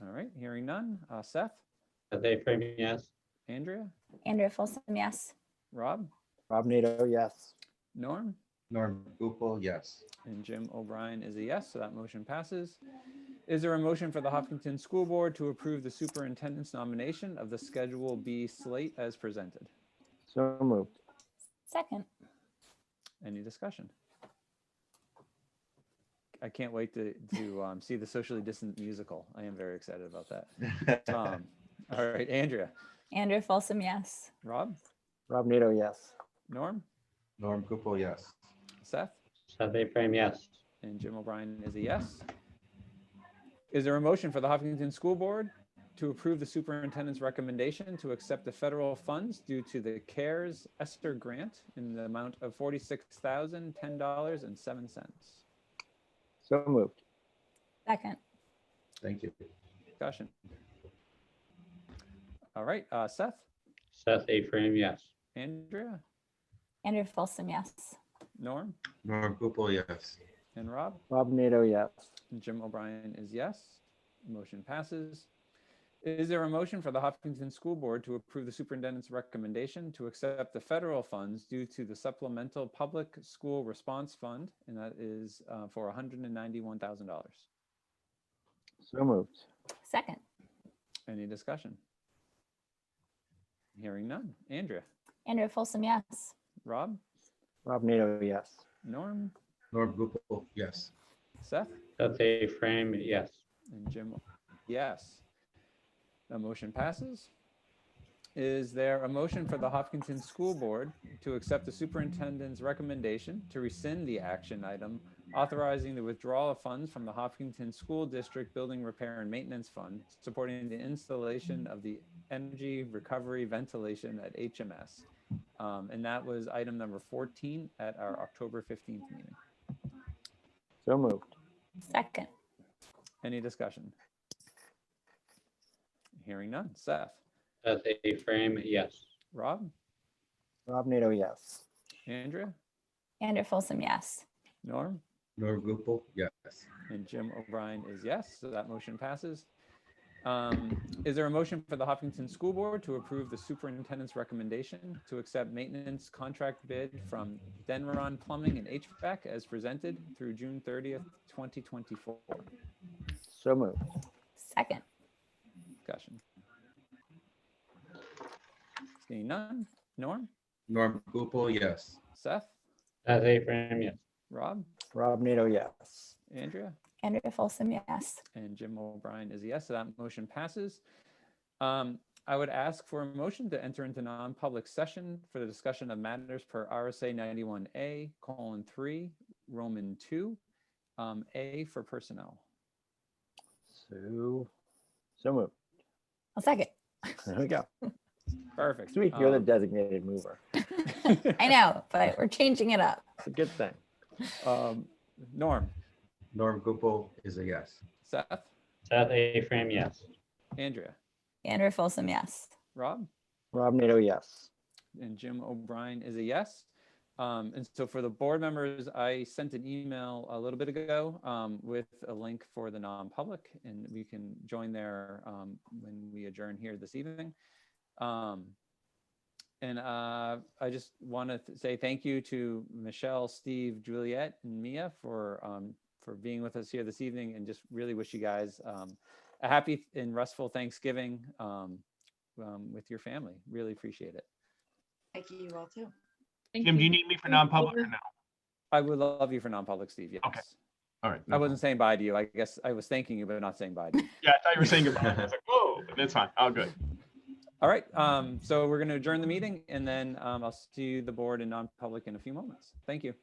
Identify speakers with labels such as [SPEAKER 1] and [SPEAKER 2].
[SPEAKER 1] All right, hearing none. Uh, Seth,
[SPEAKER 2] Dave Frame, yes.
[SPEAKER 1] Andrea,
[SPEAKER 3] Andrea Folsom, yes.
[SPEAKER 1] Rob,
[SPEAKER 4] Rob Nato, yes.
[SPEAKER 1] Norm,
[SPEAKER 5] Norm Gupel, yes.
[SPEAKER 1] and Jim O'Brien is a yes, so that motion passes. Is there a motion for the Hopkinton School Board to approve the superintendent's nomination of the Schedule B slate as presented?
[SPEAKER 4] So moved.
[SPEAKER 3] Second.
[SPEAKER 1] Any discussion? I can't wait to, to um, see the socially distant musical. I am very excited about that. Tom. All right, Andrea,
[SPEAKER 3] Andrea Folsom, yes.
[SPEAKER 1] Rob,
[SPEAKER 4] Rob Nato, yes.
[SPEAKER 1] Norm,
[SPEAKER 5] Norm Gupel, yes.
[SPEAKER 1] Seth,
[SPEAKER 2] Seth A. Frame, yes.
[SPEAKER 1] and Jim O'Brien is a yes. Is there a motion for the Hopkinton School Board to approve the superintendent's recommendation to accept the federal funds due to the CARES Esther Grant in the amount of $46,010.07?
[SPEAKER 4] So moved.
[SPEAKER 3] Second.
[SPEAKER 5] Thank you.
[SPEAKER 1] Discussion. All right, uh, Seth,
[SPEAKER 2] Seth A. Frame, yes.
[SPEAKER 1] Andrea,
[SPEAKER 3] Andrea Folsom, yes.
[SPEAKER 1] Norm,
[SPEAKER 5] Norm Gupel, yes.
[SPEAKER 1] and Rob?
[SPEAKER 4] Rob Nato, yes.
[SPEAKER 1] Jim O'Brien is yes. Motion passes. Is there a motion for the Hopkinton School Board to approve the superintendent's recommendation to accept the federal funds due to the supplemental public school response fund? And that is uh, for $191,000.
[SPEAKER 4] So moved.
[SPEAKER 3] Second.
[SPEAKER 1] Any discussion? Hearing none. Andrea,
[SPEAKER 3] Andrea Folsom, yes.
[SPEAKER 1] Rob,
[SPEAKER 4] Rob Nato, yes.
[SPEAKER 1] Norm,
[SPEAKER 5] Norm Gupel, yes.
[SPEAKER 1] Seth?
[SPEAKER 2] Seth A. Frame, yes.
[SPEAKER 1] And Jim, yes. The motion passes. Is there a motion for the Hopkinton School Board to accept the superintendent's recommendation to rescind the action item authorizing the withdrawal of funds from the Hopkinton School District Building Repair and Maintenance Fund supporting the installation of the energy recovery ventilation at HMS? Um, And that was item number 14 at our October 15th meeting.
[SPEAKER 4] So moved.
[SPEAKER 3] Second.
[SPEAKER 1] Any discussion? Hearing none. Seth,
[SPEAKER 2] Seth A. Frame, yes.
[SPEAKER 1] Rob,
[SPEAKER 4] Rob Nato, yes.
[SPEAKER 1] Andrea,
[SPEAKER 3] Andrea Folsom, yes.
[SPEAKER 1] Norm,
[SPEAKER 5] Norm Gupel, yes.
[SPEAKER 1] and Jim O'Brien is yes, so that motion passes. Um, Is there a motion for the Hopkinton School Board to approve the superintendent's recommendation to accept maintenance contract bid from Denron Plumbing and HVAC as presented through June 30th, 2024?
[SPEAKER 4] So moved.
[SPEAKER 3] Second.
[SPEAKER 1] Discussion. Seeing none. Norm,
[SPEAKER 5] Norm Gupel, yes.
[SPEAKER 1] Seth,
[SPEAKER 2] Seth A. Frame, yes.
[SPEAKER 1] Rob,
[SPEAKER 4] Rob Nato, yes.
[SPEAKER 1] Andrea?
[SPEAKER 3] Andrea Folsom, yes.
[SPEAKER 1] And Jim O'Brien is a yes, so that motion passes. Um, I would ask for a motion to enter into non-public session for the discussion of matters per RSA ninety-one A colon three, Roman two, um, A for personnel.
[SPEAKER 4] So, so moved.
[SPEAKER 3] I'll second.
[SPEAKER 4] There we go.
[SPEAKER 1] Perfect.
[SPEAKER 4] Sweet, you're the
[SPEAKER 1] Um,
[SPEAKER 4] designated mover.
[SPEAKER 3] I know, but we're changing it up.
[SPEAKER 4] It's a good thing.
[SPEAKER 1] um, Norm,
[SPEAKER 5] Norm Gupel is a yes.
[SPEAKER 1] Seth,
[SPEAKER 2] Seth A. Frame, yes.
[SPEAKER 1] Andrea,
[SPEAKER 3] Andrea Folsom, yes.
[SPEAKER 1] Rob?
[SPEAKER 4] Rob Nato, yes.
[SPEAKER 1] and Jim O'Brien is a yes. Um, and so for the board members, I sent an email a little bit ago um, with a link for the non-public, and we can join there um, when we adjourn here this evening. Um, and uh, I just want to say thank you to Michelle, Steve, Juliet, and Mia for um, for being with us here this evening, and just really wish you guys um, a happy and restful Thanksgiving um, um, with your family. Really appreciate it.
[SPEAKER 6] Thank you all too.
[SPEAKER 7] Jim, do you need me for non-public or no?
[SPEAKER 1] I would love you for non-public, Steve. Yes.
[SPEAKER 7] Okay. All right.
[SPEAKER 1] I wasn't saying bye to you. I guess I was thanking you, but not saying bye to you.
[SPEAKER 7] Yeah, I thought you were saying goodbye. I was like, whoa, but that's fine. All good.
[SPEAKER 1] All right. Um, so we're going to adjourn the meeting and then um, I'll see the board in non-public in a few moments. Thank you.